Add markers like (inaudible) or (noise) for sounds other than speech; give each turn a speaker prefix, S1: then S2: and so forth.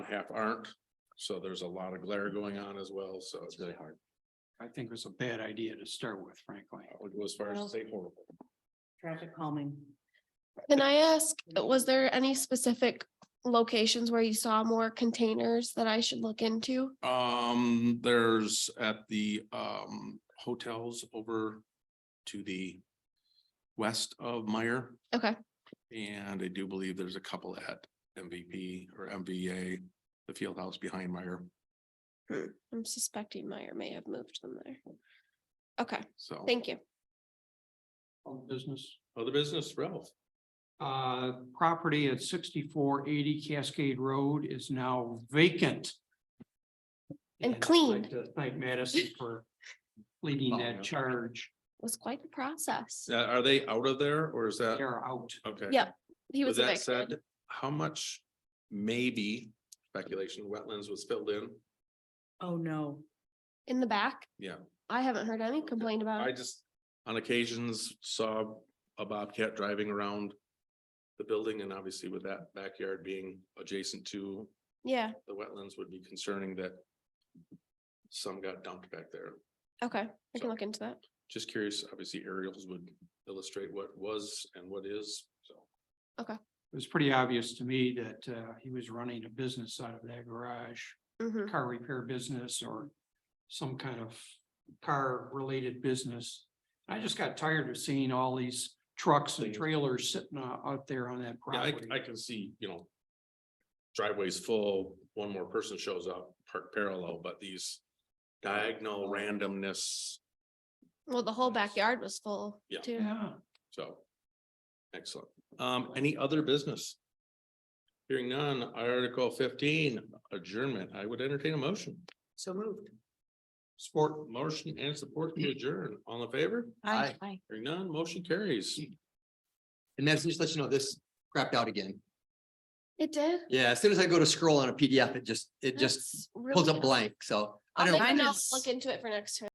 S1: half aren't. So there's a lot of glare going on as well, so
S2: It's really hard.
S3: I think it was a bad idea to start with, frankly.
S1: I would go as far as to say horrible.
S4: Traffic calming.
S5: Can I ask, was there any specific locations where you saw more containers that I should look into?
S1: Um, there's at the um hotels over to the west of Meyer.
S5: Okay.
S1: And I do believe there's a couple at MVP or MVA, the field house behind Meyer,
S5: I'm suspecting Meyer may have moved them there. Okay,
S1: so.
S5: thank you.
S3: Old business,
S1: Other Oh, business, Ralph.
S3: uh, property at sixty-four eighty Cascade Road is now vacant.
S5: And
S3: I'd
S5: cleaned.
S3: like to Thank
S5: (laughs)
S3: Madison for leading
S1: Oh, yeah.
S3: that charge.
S5: Was quite the process.
S1: Uh, Are they out of there or is that?
S3: They're out.
S1: Okay.
S5: Yeah, He
S1: With
S5: was
S1: that
S5: evicted.
S1: said, how much maybe speculation wetlands was filled in?
S4: Oh, no.
S5: in the back.
S1: Yeah.
S5: I haven't heard any complaint about
S1: I
S5: it.
S1: just, on occasions, saw a bobcat driving around the building and obviously with that backyard being adjacent to
S5: Yeah,
S1: the wetlands would be concerning that some got dumped back there.
S5: okay, I
S1: So-
S5: can look into that.
S1: Just curious, obviously aerials would illustrate what was and what is, so.
S3: It was pretty obvious to me that, uh, he was running a business out of that garage.
S5: Mhm.
S3: car repair business or some kind of car related business. I just got tired of seeing all these trucks and
S1: Things.
S3: trailers sitting out out there on that
S1: Yeah, I,
S3: property.
S1: I can see, you know. Driveways full, one more person shows up, park parallel, but these diagonal randomness,
S5: Well, the whole backyard was full
S1: Yeah.
S5: too.
S3: Yeah,
S1: so. Excellent. Um, any other business? Hearing none, Article fifteen adjournment. I would entertain a motion.
S4: So moved.
S1: Support motion and support to adjourn. All in favor?
S2: Aye.
S4: Aye.
S1: Hearing none, motion carries.
S2: And Madison, just let you know, this crapped out again.
S5: It did.
S2: Yeah, as soon as I go to scroll on a PDF, it just, it just
S5: That's
S2: pulls
S5: really
S2: up
S5: dumb.
S2: blank, so. I
S5: I'll
S2: don't.
S5: make a
S4: Mine
S5: note,
S4: is-
S5: look into it for next time.